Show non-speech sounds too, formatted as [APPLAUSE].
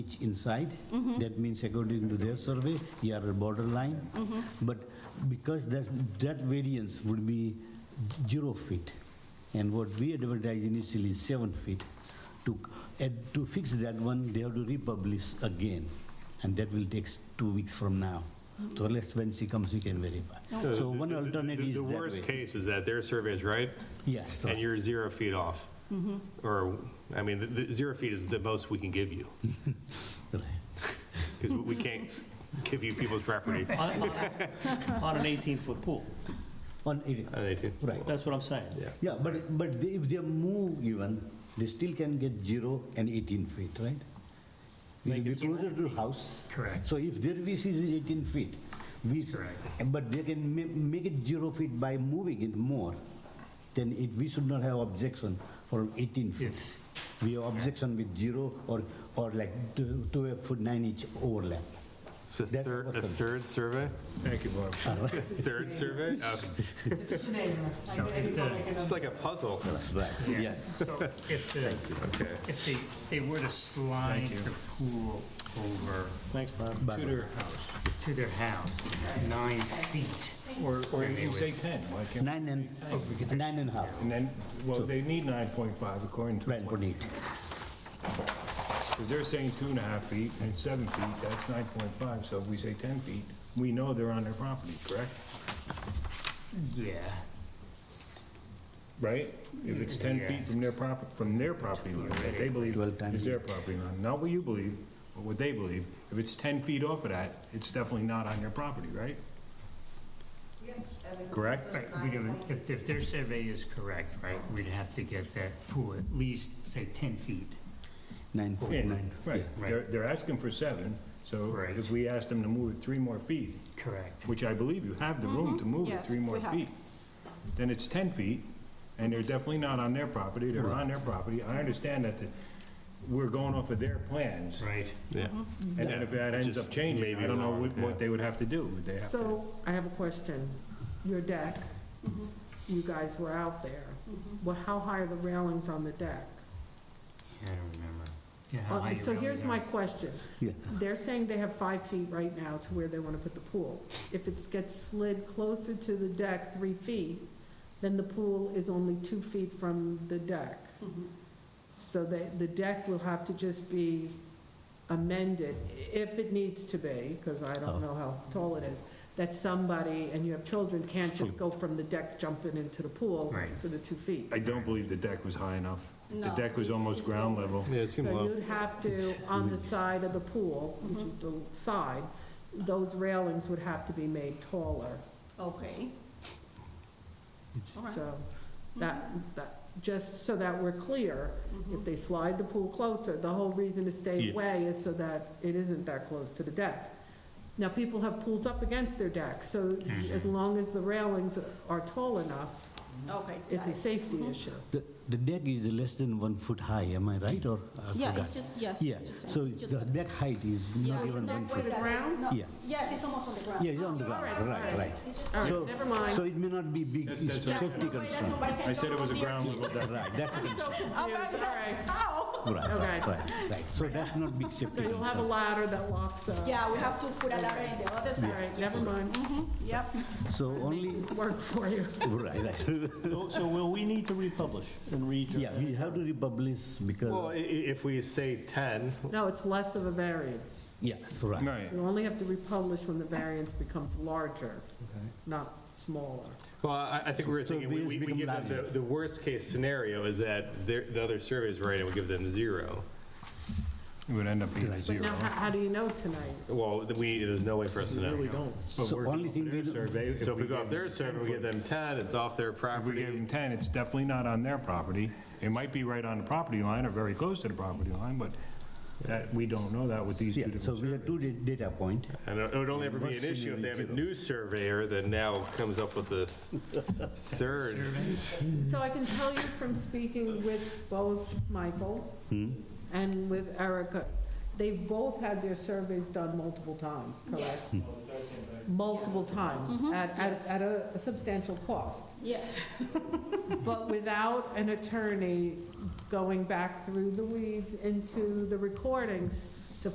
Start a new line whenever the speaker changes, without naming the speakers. each inside. That means according to their survey, you are borderline. But because that, that variance would be zero feet, and what we advertise initially is seven feet, to, and to fix that one, they have to republish again, and that will take s- two weeks from now. So unless when she comes, we can verify. So one
The- the-
alternate
the-
is that
The worst
way. Oh.
case is that their survey is right,
Yes.
and you're zero feet off. Or, I mean, the- the zero feet is the most we can give you,
right.
because we can't give you people's property.
on,
[LAUGHS]
on- on an 18-foot pool.
On eighty-
Uh, they do.
Right.
That's what I'm saying.
Yeah, but, but they- if they move even, they still can get zero and 18 feet, right? It will be closer to the house.
Correct.
So if their VC is 18 feet, we.
That's correct.
But they can ma- make it zero feet by moving it more, then it, we should not have objection for 18 feet.
If-
We have objection with zero or, or like two, two a foot nine inch overlap.
So
That's Oh.
thir-
what
a
the-
third survey?
Thank you, Bob.
[LAUGHS] Third
[LAUGHS]
survey? Okay.
It's a neighbor.
So
Like,
if
every
the-
time I get
It's
on-
like a puzzle.
Right,
So if the, if they, they were to slide the pool over.
Thanks, Bob.
To their house. To their house, nine feet.
Or, or you can say 10, why can't,
Nine and,
Oh,
nine and a half,
and then, well, they need 9.5 according to,
right, put it.
because they're saying two and a half feet, and it's seven feet, that's 9.5, so if we say 10 feet, we know they're on their property, correct?
Yeah.
Right? If it's 10 feet from their property, from their property line, that they believe
Twelve times.
is their property line, not what you believe, but what they believe, if it's 10 feet off of that, it's definitely not on their property, right? Correct?
Right, we'd have- If, if their survey is correct, right, we'd have to get that pool at least, say, 10 feet.
Nine foot
Yeah,
nine.
Right,
yeah.
they're, they're asking for seven, so
Right.
if we ask them to move it three more feet,
Correct.
which I believe you have the room to move it
Mm-hmm. Yes,
three more
we have.
feet, then it's 10 feet, and they're definitely not on their property, they're on their property. I understand that the- we're going off of their plans,
Right.
Yeah.
Mm-hmm.
and then if that ends
Just
up changing,
maybe
I don't know
wrong,
what
yeah.
what they would have to do. Would they have to-
So, I have a question. Your deck, you guys were out there. Well, how high are the railings on the deck?
Yeah, I don't remember. Yeah, how
Uh,
high you
So
really
here's
are.
my question.
Yeah.
They're saying they have five feet right now to where they want to put the pool. If it gets slid closer to the deck, three feet, then the pool is only two feet from the deck. So the, the deck will have to just be amended, if it needs to be, because I don't know how tall it is, that somebody, and you have children, can't just go from the deck jumping into the pool
Right.
for the two feet.
I don't believe the deck was high enough. The
No,
deck was
it's-
almost
it's
ground
lower.
level.
Yeah, it seemed
So
low.
you'd have to, on the side of the pool, which is
Mm-hmm.
the side, those railings would have to be made taller.
Okay. All right.
So that, that, just so that we're clear,
Mm-hmm.
if they slide the pool closer, the whole reason to stay
Yeah.
away is so that it isn't that close to the deck. Now, people have pools up against their deck, so as long as the railings are tall enough,
Okay.
it's
got
a
it.
safety issue.
The the deck is less than one foot high, am I right, or? I
Yeah,
forgot?
it's just, yes.
Yeah,
it's just-
so
it's just
the
a-
deck height is
Yeah,
not
it's
even
not
one
quite
foot.
that-
ground?
no.
Yeah.
Yes, it's almost on the ground.
Yeah, it's on the ground, right, right.
It's just-
All right,
So-
never mind.
So it may not be big, it's
that's-
a safety
No, wait, that's
concern.
all right,
I said it was a
don't
ground
know.
level deck.
Right, that's the concern.
All right,
Confused, all right.
how?
Right, right,
Okay.
right, right. So that's not big
So
safety
you'll have
concern.
a ladder that locks up.
Yeah, we have to put a ladder in the other
All
side.
right, never mind.
Mm-hmm. Yep.
So only,
It's work for you.
right, right.
So so will we need to republish and read?
Yeah, we have to republish
Well, i-
because,
i- if we say 10,
No, it's less of a variance.
yes, right.
Right.
You only have to republish when the variance becomes larger, not smaller.
Well, I, I think we were
So
thinking, we,
these
we we
become
give them, the,
larger.
the worst case scenario is that their- the other survey is right and we give them zero.
It would end up being a
But
zero.
now, how, how do you know tonight?
Well, th- we, there's no way for us to know.
But
So
we're going
only
off
thing
their
we do-
survey,
So if we go
gave
off their
them
survey,
10
we give
foot-
them 10, it's off their
If we
property.
gave them 10, it's definitely not on their property. It might be right on the property line or very close to the property line, but that, we don't know that with these two
Yeah,
different
so we have two da- data point.
And it would only ever be an issue if they have a new surveyor that now comes up with [LAUGHS] a third.
So I can tell you from speaking with both Michael and with Erica, they've both had their surveys done multiple times, correct? Multiple times, at, at, at a substantial cost.
Yes.
But without an attorney going back through the weeds into the recordings,